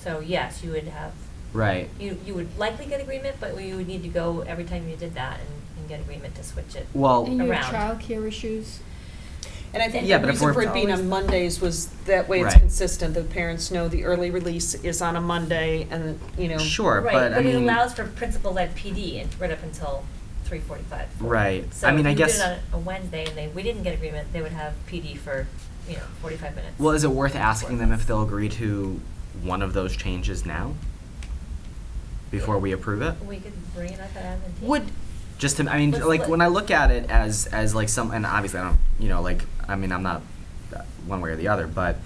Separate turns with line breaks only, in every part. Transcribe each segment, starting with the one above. So yes, you would have,
Right.
you, you would likely get agreement, but you would need to go every time you did that and, and get agreement to switch it.
Well-
And you have
Around.
childcare issues.
And I think
Yeah,
the
but if
reason
we're-
for it being on Mondays was that way it's
Right.
consistent, the parents know the early release is on a Monday and, you know.
Sure,
Right,
but I
but it
mean.
allows for principal-led PD and right up until three forty-five.
Right.
So
I mean,
if
I
you did
guess-
it on a Wednesday and they, we didn't get agreement, they would have PD for, you know, forty-five minutes.
Well, is it worth asking them if they'll agree to one of those changes now? Before we approve it?
We could bring it up at admin team.
Would, just to, I mean,
Let's
like,
look.
when I look at it as, as like some, and obviously I don't, you know, like, I mean, I'm not uh, one way or the other, but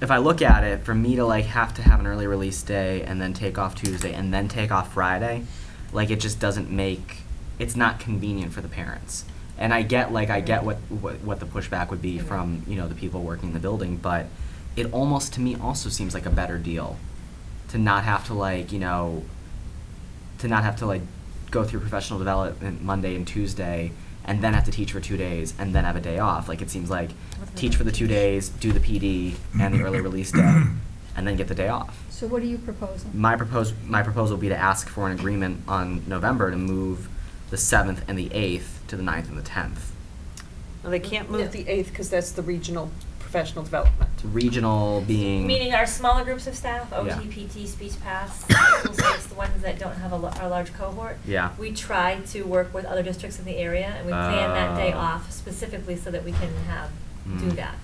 if I look at it, for me to like have to have an early release day and then take off Tuesday and then take off Friday, like, it just doesn't make, it's not convenient for the parents. And I get, like, I get what, what, what the pushback would be
Mhm.
from, you know, the people working in the building, but it almost, to me, also seems like a better deal to not have to like you know to not have to like go through professional development Monday and Tuesday and then have to teach for two days and then have a day off. Like it seems like
What's
teach for the two days, do the PD and the early release day, and then get the day off.
So what are you proposing?
My propose my proposal would be to ask for an agreement on November to move the seventh and the eighth to the 9th and the tenth.
Well, They can't
Yeah.
move the eighth because that's the regional professional development.
Regional being
Meaning our smaller groups of staff,
Yeah.
OT, PT, speech paths, school sites, the ones that don't have a, lo- our large cohort.
Yeah.
We try to work with other districts in the area and we plan that day
Oh.
off specifically so that we can have, do
Mm.
that.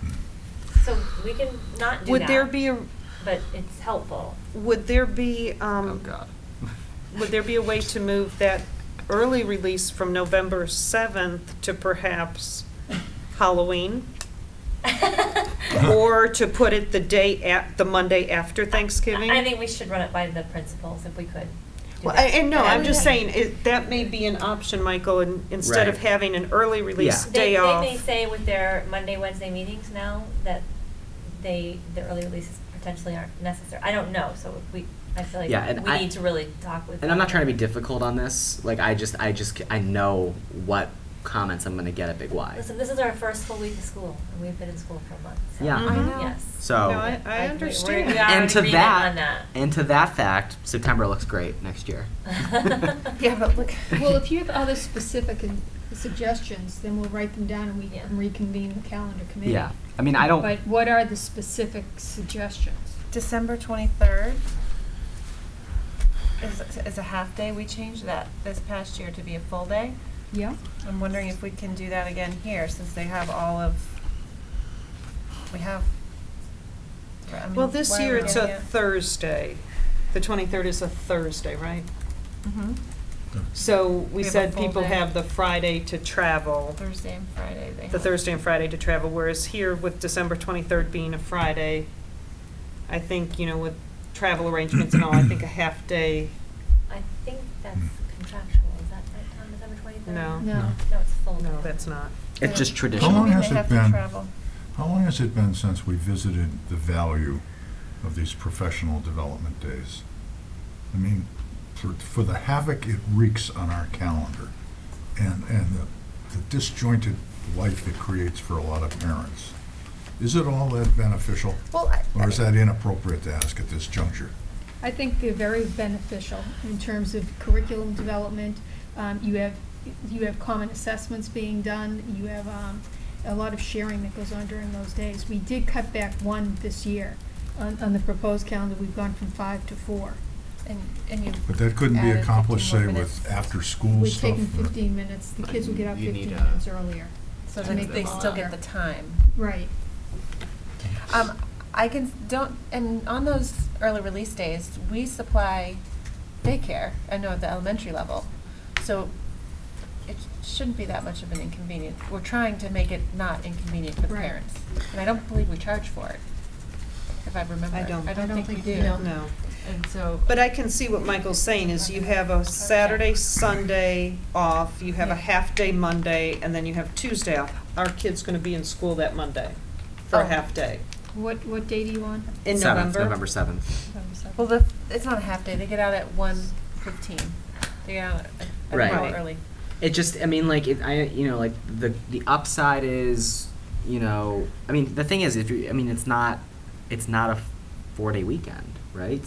So we can not do that.
Would there be a,
But it's helpful.
would there be, um.
Oh god.
Would there be a way to move that early release from November 7th to perhaps Halloween? Or to put it the day at, the Monday after Thanksgiving?
I I think we should run it by the principals if we could. do
Well,
that.
and no, I'm just
Yeah.
saying, it- that may be an option, Michael, in- instead of
Right.
having an early release
Yeah.
They,
day
they
off.
may say with their Monday, Wednesday meetings now that they, the early releases potentially aren't necessary. I don't know, so we, I feel like
Yeah, and
we
I-
need to really talk with.
And I'm not trying to be
them.
difficult on this. Like I just, I just, I know what comments I'm gonna get at Big Y.
Listen, this is our first full week of school, and we've been in school for a month. so-
Yeah.
Mm-hmm. I know.
Yes.
So-
No, I, I
Like, we-
understand.
we are in
And to
agreement
that-
on that.
And to that fact, September looks great next year.
Yeah, but look-
Well, if you have other specific and suggestions, then we'll write them down and we
Yeah.
can reconvene the calendar committee.
Yeah, I mean, I don't.
But what are the specific suggestions?
December twenty-third is, is a half day. We changed that this past year to be a full day.
Yeah?
I'm wondering if we can do that again here, since they have all of, we have. I mean,
Well, this
why are
year
we
it's
doing
a Thursday. The 23rd is a Thursday, right?
it? Mhm.
Mm.
So we
We have a
said
full
people
day.
have the Friday to travel.
Thursday and Friday they have.
the Thursday and Friday to travel, whereas here with December 23rd being a Friday, I think, you know, with travel arrangements and all, I think a half day,
I think that's contractual, is that right, Tom, December twenty-third?
No.
No.
No, it's full.
no, that's not.
it's just
How
traditional.
long
has
they
it
have to
been?
travel.
How long has it been since we visited the value of these professional development days? I mean, for, for the havoc it wreaks on our calendar and, and the, the disjointed life it creates for a lot of parents. Is it all that beneficial?
Well, I-
Or is that inappropriate to ask at this juncture?
I think they're very beneficial in terms of curriculum development. Um, you have, you have common assessments being done, you have, um, a lot of sharing that goes on during those days. We did cut back one this year. On, on the proposed calendar, we've gone from five to four.
And, and you.
But that couldn't be
added 15
accomplished,
more
say,
minutes.
with after-school
We're
stuff. uh,
taking
or-
fifteen minutes, the kids will get up
You need
fifteen
a-
minutes earlier.
So
to
that
make
they
it
still get
longer.
the time.
Right.
Um, I can, don't, and on those early release days, we supply daycare, I know at the elementary level. So it shouldn't be that much of an inconvenience. We're trying to make it not inconvenient for the
Right.
parents. And I don't believe we charge for it, if I remember.
I don't-
I
I don't
don't think we
think
do.
we do.
No.
And so.
But I can see what Michael's saying is you have a Saturday, Sunday off, you have a
Yeah.
half-day Monday, and then you have Tuesday off. Our kid's gonna be in school that Monday for a
Oh.
half day
What, what day do you want?
in
seventh,
November.
November seventh.
Well, the, it's not a half day, they get out at one fifteen. They get out at, at
Right.
real early.
It just, I mean, like, it, I, you know, like the the upside is, you know, I mean, the thing is, if you, I mean, it's not, it's not a four day weekend, right?